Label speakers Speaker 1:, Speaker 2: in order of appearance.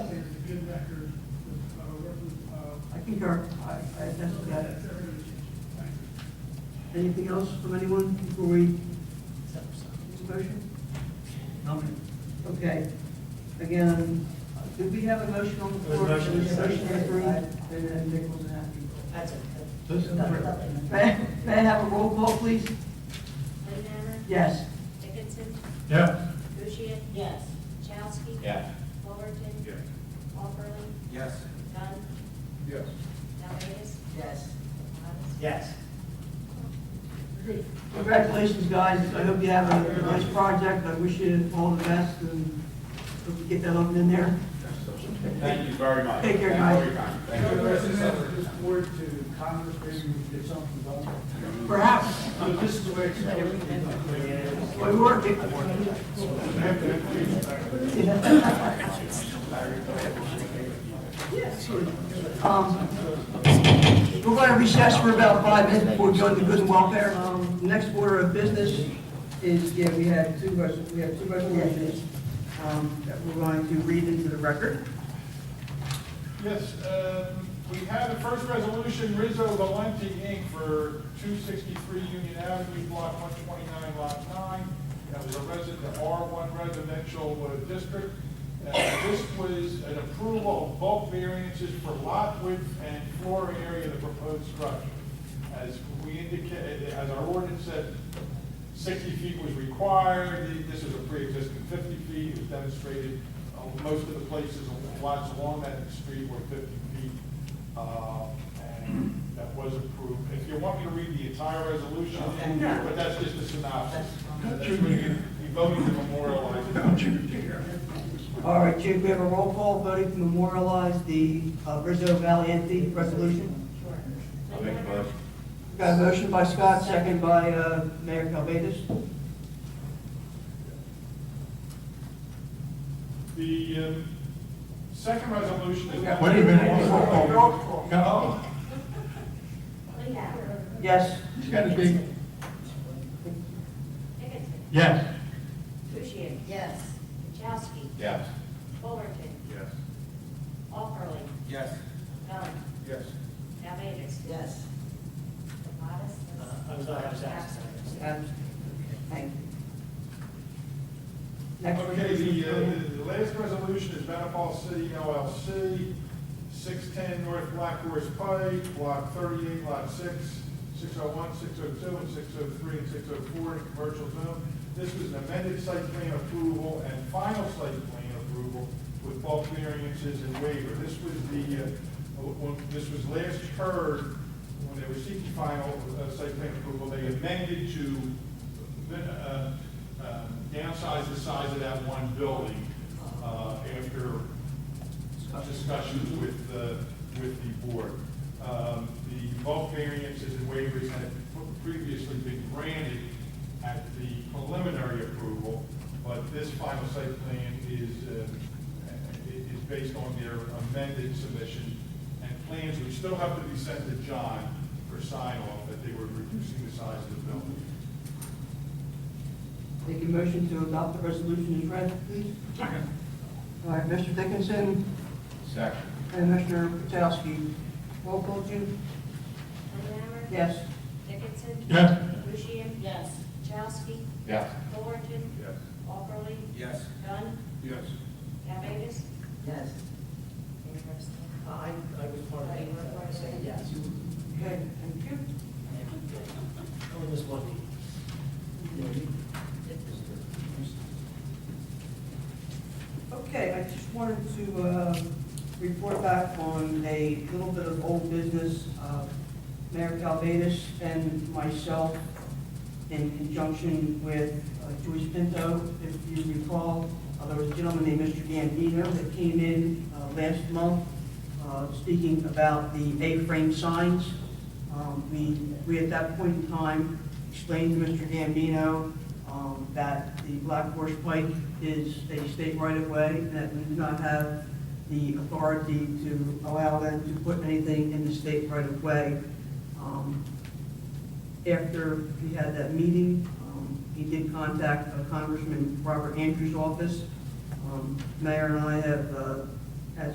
Speaker 1: Peter, I, I attest to that. Anything else from anyone before we, Mr. motion? Okay, again, did we have a motion on the
Speaker 2: There's
Speaker 1: floor?
Speaker 2: a motion.
Speaker 1: There's a motion approved, and then Dick was happy.
Speaker 3: That's it.
Speaker 2: This is-
Speaker 1: May, may I have a roll call, please?
Speaker 4: Benhammer?
Speaker 1: Yes.
Speaker 4: Dickinson?
Speaker 2: Yeah.
Speaker 4: Bushian?
Speaker 3: Yes.
Speaker 4: Chowski?
Speaker 2: Yeah.
Speaker 4: Fullerton?
Speaker 2: Yeah.
Speaker 4: Walperly?
Speaker 2: Yes.
Speaker 4: Dunn?
Speaker 2: Yes.
Speaker 4: Valdez?
Speaker 3: Yes.
Speaker 4: Demotis?
Speaker 2: Yes.
Speaker 1: Congratulations, guys, I hope you have a a nice project, I wish you all the best, and hope you get that oven in there.
Speaker 5: Thank you very much.
Speaker 1: Take care,
Speaker 5: Thank you
Speaker 1: guys.
Speaker 5: for your time. Thank
Speaker 2: Go
Speaker 5: you.
Speaker 2: the resident of this board to Congress, maybe we can get something done.
Speaker 1: Perhaps,
Speaker 2: So this is the way it's supposed to be done.
Speaker 1: we work it. Um, We're going to recess for about five minutes before we go into good and welfare. Um, the Next order of business is, yeah, we have two, res- we have two resolutions um, that we're going to read into the record.
Speaker 6: Yes, um, we have the first resolution, Rizzo Valenti Inc. for 263 Union Avenue, Block 129, Lot 9. That was a resident, the R1 residential uh, district. Uh, This was an approval of bulk variances for lot width and floor area of the proposed structure. As we indicated, as our ordinance said, 60 feet was required, this is a pre-existing 50 feet, it was demonstrated, uh, most of the places, lots along that street were 50 feet, uh, and that was approved. If you want me to read the entire resolution, but that's just a synopsis. Uh, That's what you- you voted to memorialize.
Speaker 1: All right, Chief, we have a roll call voting to memorialize the uh, Rizzo Valiente resolution.
Speaker 5: I'll make a motion.
Speaker 1: Got a motion by Scott, second by uh, Mayor Calvadas.
Speaker 6: The um, second resolution is.
Speaker 2: Wait a minute.
Speaker 6: Roll call. No?
Speaker 4: Leonard?
Speaker 1: Yes.
Speaker 2: It's gotta be,
Speaker 4: Dickinson?
Speaker 2: yes.
Speaker 4: Bushian?
Speaker 3: Yes.
Speaker 4: Chowski?
Speaker 5: Yes.
Speaker 4: Fullerton?
Speaker 5: Yes.
Speaker 4: Walperly?
Speaker 5: Yes.
Speaker 4: Dunn?
Speaker 5: Yes.
Speaker 4: Valdez?
Speaker 3: Yes.
Speaker 4: Demotis?
Speaker 2: I was not, Uh, I was absent.
Speaker 1: Abs- Um, Thank you. Next one.
Speaker 6: Okay, the, uh, the last resolution is Manipal City LLC, six-ten North Black Horse Pike, block thirty-eight, lot six, 601, 602, and six oh three, and six oh four, in the commercial zone. This was an amended site plan approval and final site plan approval with bulk variances and waiver. This was the, uh, when, this was last heard, when they were seeking final uh, site plan approval, they amended to uh, uh, downsize the size of that one building uh, after discussions with the, with the board. Um, The bulk variances and waivers had previously been granted at the preliminary approval, but this final site plan is, uh, is based on their amended submission and plans which still have to be sent to John for sign off that they were reducing the size of the building.
Speaker 1: Take a motion to adopt the resolution as read, please. All right, Mr. Dickinson
Speaker 5: Second.
Speaker 1: and Mr. Potowski. Roll call, Jim?
Speaker 4: Leonard?
Speaker 1: Yes.
Speaker 4: Dickinson?
Speaker 2: Yes.
Speaker 4: Bushian?
Speaker 3: Yes.
Speaker 4: Chowski?
Speaker 5: Yes.
Speaker 4: Fullerton?
Speaker 5: Yes.
Speaker 4: Walperly?
Speaker 5: Yes.
Speaker 4: Dunn?
Speaker 5: Yes.
Speaker 4: Valdez?
Speaker 3: Yes. I, I was part uh,
Speaker 4: of it, so I say
Speaker 3: yes.
Speaker 1: Okay, thank you.
Speaker 3: Only was one
Speaker 1: Okay, I just wanted to uh, report back on a little bit of old business. Uh, Mayor Calvadas and myself, in conjunction with uh, Joyce Pinto, if you recall, uh, there was a gentleman named Mr. Gambino that came in uh, last month uh, speaking about the A-frame signs. Um, We, we at that point in time explained to Mr. Gambino um, that the Black Horse Pike is a state right-of-way, and that we do not have the authority to allow them to put anything in the state right-of-way. Um, After we had that meeting, um, he did contact uh, Congressman Robert Andrews' office. Um, Mayor and I have uh,